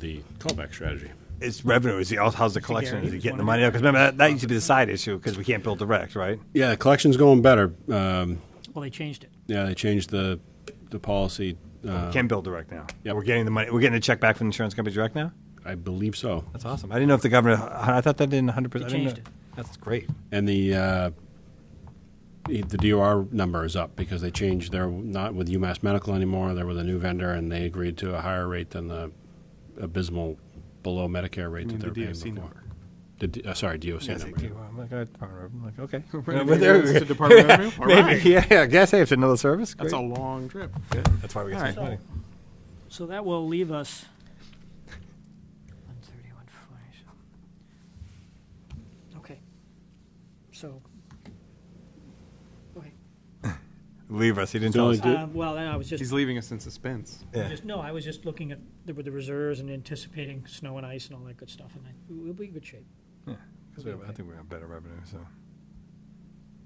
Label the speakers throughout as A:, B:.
A: the callback strategy.
B: It's revenue. Is he, how's the collection? Is he
C: He's
B: getting the
C: one of
B: money out? Because remember, that, that used to be the side issue because we can't build direct, right?
A: Yeah, collection's going better. Um,
C: Well, they changed it.
A: yeah, they changed the the policy. Uh,
B: we can build direct now.
A: Yep.
B: We're getting the money. We're getting the check back from the insurance company direct now.
A: I believe so.
B: That's awesome. I didn't know if the governor. I thought that didn't 100. percent
C: They changed it.
B: That's great.
A: And the uh, the the DOR number is up because they changed. They're not with UMass Medical anymore. They're with a new vendor, and they agreed to a higher rate than the abysmal below Medicare rate
D: mean
A: that
D: the
A: they're
D: DOC
A: paying before.
D: number?
A: The D- uh, sorry, DOC
B: Yeah,
A: number. yeah.
B: I'm like, uh, Department of Revenue. I'm like, okay.
D: Right,
B: Yeah,
D: maybe
B: but there-
D: it's the Department of Revenue? All
B: Maybe,
D: right.
B: yeah, I guess hey, it's another service.
D: That's a
B: Great.
D: long trip.
B: That's why we got
D: All
B: so
D: right.
B: much money.
C: So that will leave us. 130, 140, so- Okay. So. okay.
B: Leave us. He didn't
A: The
B: tell
A: only
B: us.
A: Do-
C: Uh, Well, I was just,
D: He's leaving us in suspense.
B: Yeah.
C: just, no, I was just looking at the with the reserves and anticipating snow and ice and all that good stuff, and I- we'll be in good shape.
B: 'Cause we have- I think we have better revenue. So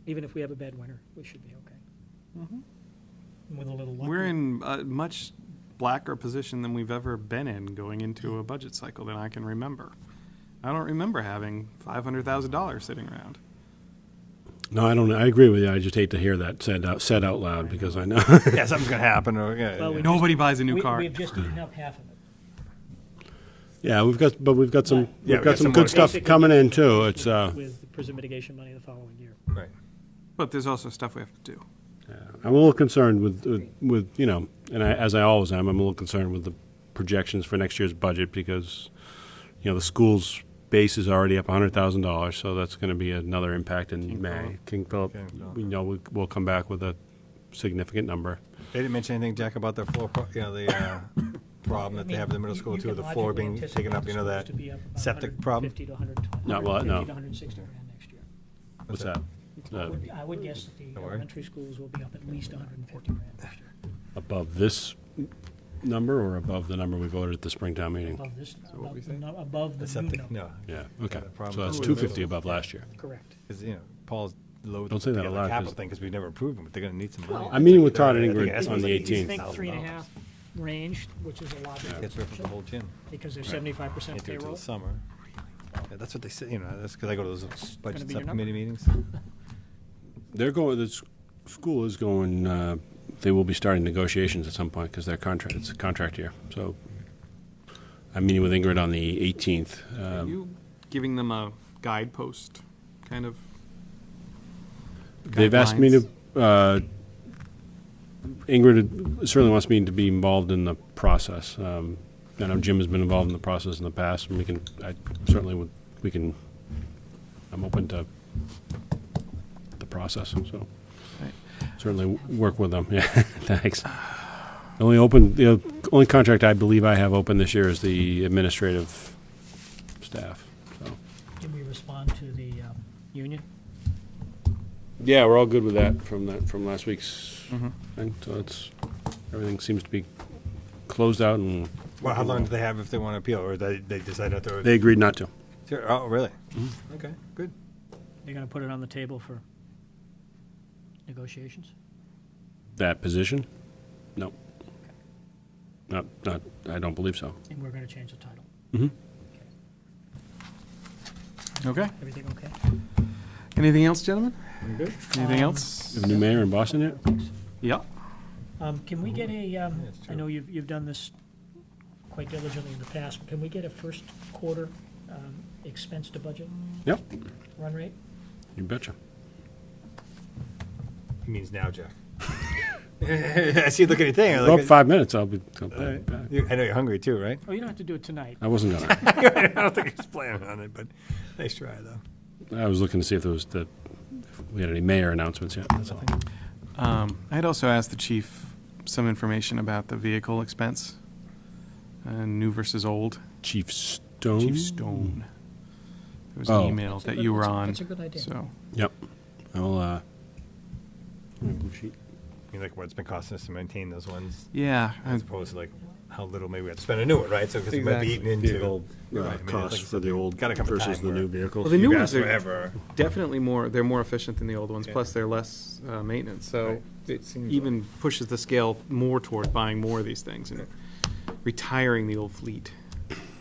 C: Even if we have a bad winter, we should be okay. With a little luck.
D: Mm-hmm. We're in a much blacker position than we've ever been in going into a budget cycle than I can remember. I don't remember having $500,000 sitting around.
A: No, I don't. I agree with you. I just hate to hear that said out said out loud because I know.
B: yeah, something's gonna happen. Or, yeah,
C: Well,
B: yeah.
C: we-
D: Nobody buys a new
C: We-
D: car.
C: We've just eaten up half of it.
A: yeah, we've got, but we've got some,
C: Yeah,
A: we've
B: we
A: got,
B: got
A: some,
B: some more-
A: good stuff
C: Basically,
A: coming in too.
C: with-
A: It's uh,
C: With the prison mitigation money the following year.
B: Right.
D: But there's also stuff we have to do.
A: I'm a little concerned with, with, with you know, and I, as I always am, I'm a little concerned with the projections for next year's budget because, you know, the school's base is already up $100,000, so that's going to be another impact in May.
D: Philip.
A: King Philip,
B: King Philip.
A: we know we, we'll come back with a significant number.
B: They didn't mention anything, Jack, about their floor. Pro- you know the uh, problem that they have in the middle
C: You-
B: school
C: you
B: too.
C: can
B: The floor
C: logically
B: being taken up. You know that.
C: anticipate the schools to be up about
B: septic problem?
C: 150 to 100
A: Not well, no.
C: 150 to 160 grand next year.
A: What's that?
C: I
A: Uh,
C: would- I would guess that the
B: Don't worry.
C: elementary schools will be up at least 150 grand next year.
A: Above this number or above the number we voted at the Springtown meeting?
C: Above this,
D: what we
C: above the,
D: say?
C: nu- above
B: The
C: the new
B: septic.
C: number.
B: No,
A: Yeah, okay.
B: the problem-
A: So that's
B: Oh,
A: 250 above last year.
C: Correct.
B: because you know Paul's loaded.
A: Don't say that
B: together
A: aloud,
B: Capital
A: 'cause-
B: thing because we've never approved them, but they're gonna need some money.
A: I'm meeting with Todd and
B: I think
A: Ingrid
B: it's
A: on the
B: like-
C: If you
A: 18th.
C: think three and a half range, which is a lot of
B: Gets rid of the whole gym.
C: because they're 75%
B: Can't do it till
C: payroll.
B: the summer. Yeah, that's what they say. You know, that's because I go to those budget
C: be your
B: subcommittee meetings.
A: They're going. The s- school is going. Uh, they will be starting negotiations at some point because their contract. It's a contract year. So I'm meeting with Ingrid on the 18th.
D: Are
A: Um,
D: you giving them a guidepost kind of?
A: they've asked me to.
D: guidelines?
A: Uh, Ingrid certainly wants me to be involved in the process. Um, I know Jim has been involved in the process in the past, and we can. I certainly would. We can. I'm open to the process. So.
D: Right.
A: certainly w- work with them. Yeah, thanks. The only open, the only contract I believe I have open this year is the administrative staff. So
C: Did we respond to the um, union?
A: yeah, we're all good with that from that from last week's thing. So it's everything seems to be closed out, and
B: Well, how long do they have if they want to appeal, or they they decide not to?
A: they Mm-hmm. agreed not to.
B: oh, really? Okay, good.
C: They're going to put it on the table for negotiations?
A: That position? No. Not, not. I don't believe so.
C: And we're going to change the title.
D: Okay.
C: Everything okay?
D: Anything else, gentlemen?
B: good.
D: Anything
C: Um,
D: else?
A: We have a new mayor in Boston yet?
D: Yeah.
C: Um, Can we get a, um,
B: Yeah, it's
C: I
B: true.
C: know you've, you've done this quite diligently in the past, can we get a first quarter um, expense to budget
A: Yep.
C: run rate?
A: You betcha.
B: He means now, Jack. I see you looking at your thing. I'm
A: Well,
B: like,
A: five minutes. I'll be. I'll be
B: all right.
A: back.
B: You- I know you're hungry too, right?
C: Oh, you don't have to do it tonight.
A: I wasn't gonna.
B: I don't think he's planning on it, but nice try though.
A: I was looking to see if there was the, if we had any mayor announcements yet. That's all.
D: Um, I had also asked the chief some information about the vehicle expense, uh, new versus old.
A: Chief Stone.
D: Chief Stone. There was an
A: Oh.
D: email
C: That's a
D: that
C: good-
D: you were
C: that's a-
D: on.
C: that's a good idea.
D: So,
A: Yep. I'll. Uh, my blue sheet.
B: You like what it's been costing us to maintain those ones,
D: yeah, I-
B: as opposed to like how little maybe we have to spend a new one, right? So because we might be eaten
D: Exactly.
B: into
A: uh,
B: You're right. I mean, it's
A: costs
B: like
A: for the old
B: gotta come a
A: versus
B: time
A: the
B: where
A: new vehicles.
D: Well, the new
B: you've asked
D: ones are-
B: forever.
D: definitely more, they're more efficient than the old ones,
B: Yeah.
D: plus they're less uh, maintenance. So
B: Right.
D: it
B: Seems
D: even pushes the scale more toward buying more of these things and retiring the old fleet.